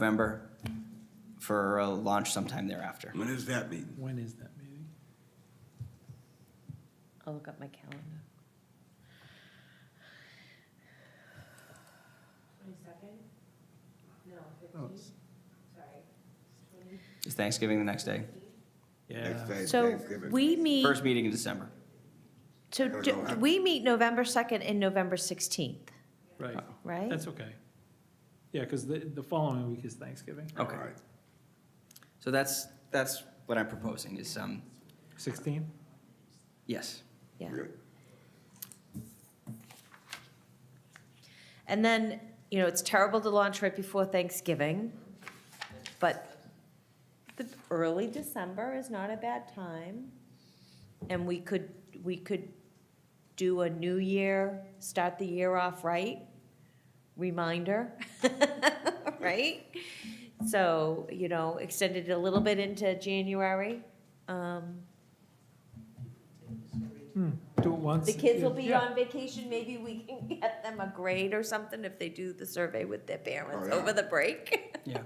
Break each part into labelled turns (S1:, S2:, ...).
S1: November for a launch sometime thereafter.
S2: When is that meeting?
S3: When is that meeting?
S4: I'll look up my calendar.
S5: Twenty-second? No,
S3: Oh,
S5: fifteenth,
S3: it's-
S5: sorry.
S1: Is Thanksgiving the next day?
S2: Next
S3: Yeah,
S2: day is
S4: So
S2: Thanksgiving.
S4: we meet,
S1: First meeting in December.
S4: so
S2: don't
S4: do-
S2: know how-
S4: we meet November 2nd and November 16th,
S3: right.
S4: right?
S3: That's okay. Yeah, because the, the following week is Thanksgiving.
S1: Okay.
S2: All right.
S1: So that's, that's what I'm proposing is, um,
S3: Sixteen?
S1: yes.
S4: Yeah.
S2: Good.
S4: And then, you know, it's terrible to launch right before Thanksgiving, but the early December is not a bad time. And we could, we could do a new year, start the year off right, reminder, right? So, you know, extend it a little bit into January. Um,
S3: Hmm, do it once.
S4: The kids will be
S3: Yeah.
S4: on vacation, maybe we can get them a grade or something if they do the survey with their
S2: Oh,
S4: parents
S2: yeah.
S4: over the break.
S1: Yeah.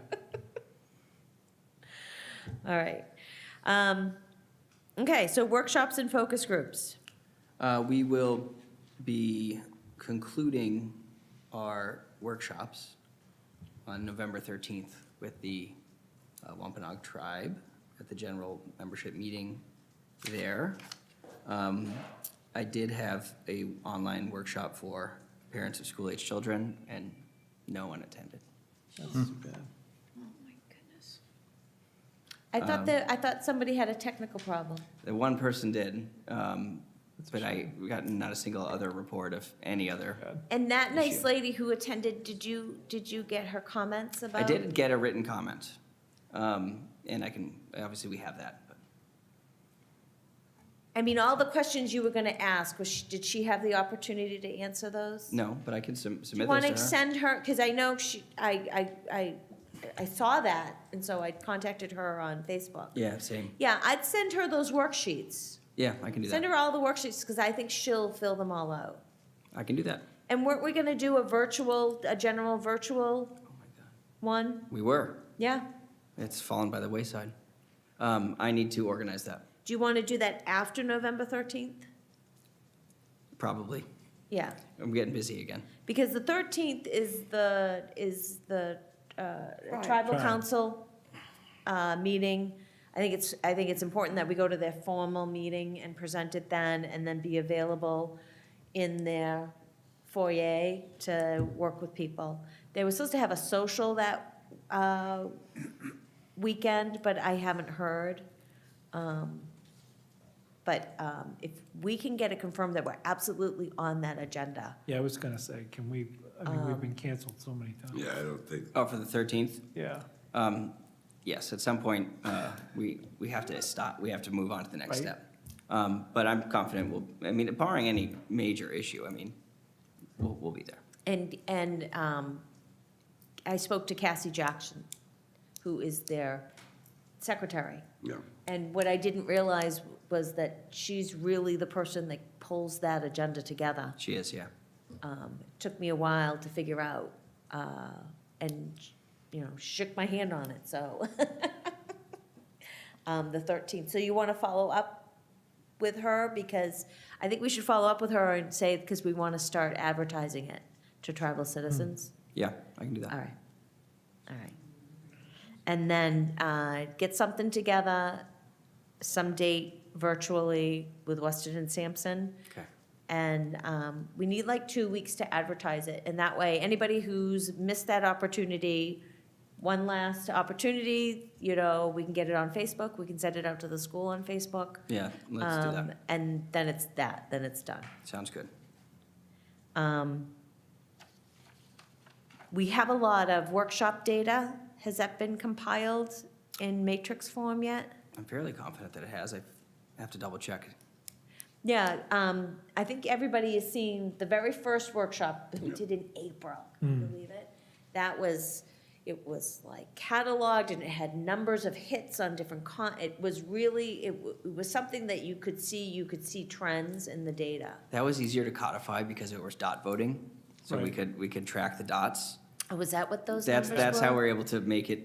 S4: All right. Um, Okay, so workshops and focus groups.
S1: Uh, We will be concluding our workshops on November 13th with the uh, Wampanoag Tribe at the general membership meeting there. Um, I did have a online workshop for parents of school-aged children, and no one attended.
S3: That's too bad.
S4: I
S1: Um,
S4: thought that, I thought somebody had a technical problem.
S1: The one person did, um,
S3: That's a
S1: but I got not a single other report of any other
S4: And that nice
S1: Issue.
S4: lady who attended, did you, did you get her comments about?
S1: I did get a written comment, um, and I can, obviously, we have that. but-
S4: I mean, all the questions you were going to ask, was, she- did she have the opportunity to answer those?
S1: No, but I can sum-
S4: Do you
S1: submit
S4: want to
S1: those to her.
S4: send her, because I know she, I, I, I, I saw that, and so I contacted her on Facebook.
S1: Yeah, same.
S4: Yeah, I'd send her those worksheets.
S1: Yeah, I can do
S4: Send
S1: that.
S4: her all the worksheets, because I think she'll fill them all out.
S1: I can do that.
S4: And weren't we going to do a virtual, a general virtual
S1: Oh my God.
S4: one?
S1: We were.
S4: Yeah?
S1: It's fallen by the wayside. Um, I need to organize that,
S4: Do you want to do that after November 13th?
S1: probably.
S4: Yeah,
S1: I'm getting busy again.
S4: because the 13th is the, is the uh, tribal
S3: Tribe.
S4: council uh, meeting. I think it's, I think it's important that we go to their formal meeting and present it then, and then be available in their foyer to work with people. They were supposed to have a social that uh, weekend, but I haven't heard. Um, But um, if we can get it confirmed that we're absolutely on that agenda,
S3: Yeah, I was gonna say, can we, I mean,
S4: Um.
S3: we've been canceled so many times.
S2: Yeah, I don't think,
S1: Oh, for the 13th?
S3: Yeah,
S1: Um, Yes, at some point, uh, we, we have to stop, we have to move on to the next
S3: Right.
S1: step. Um, But I'm confident we'll, I mean, barring any major issue, I mean, we'll, we'll be there.
S4: And, and um, I spoke to Cassie Jackson, who is their secretary.
S2: yeah.
S4: And what I didn't realize was that she's really the person that pulls that agenda together.
S1: She is, yeah.
S4: Um, It Took me a while to figure out, uh, and, you know, shook my hand on it, so. Um, The 13th, so you want to follow up with her? Because I think we should follow up with her and say, because we want to start advertising it to tribal citizens.
S1: Yeah, I can do that.
S4: All right, all right. And then uh, get something together, some date virtually with Weston and Sampson.
S1: Okay.
S4: And um, we need like two weeks to advertise it. And that way, anybody who's missed that opportunity, one last opportunity, you know, we can get it on Facebook, we can send it out to the school on Facebook.
S1: Yeah, let's do
S4: Um,
S1: that.
S4: And then it's that, then it's done.
S1: Sounds good.
S4: Um, We have a lot of workshop data. Has that been compiled in matrix form yet?
S1: I'm fairly confident that it has. I have to double check.
S4: Yeah, um, I think everybody is seeing the very first workshop that we did in April, can you believe it? That was, it was like cataloged and it had numbers of hits on different con, it was really, it w- it was something that you could see, you could see trends in the data.
S1: That was easier to codify because it was dot voting. So we
S3: Right.
S1: could, we could track the dots.
S4: Oh, Was that what those numbers
S1: That's,
S4: were?
S1: that's how we're able to make it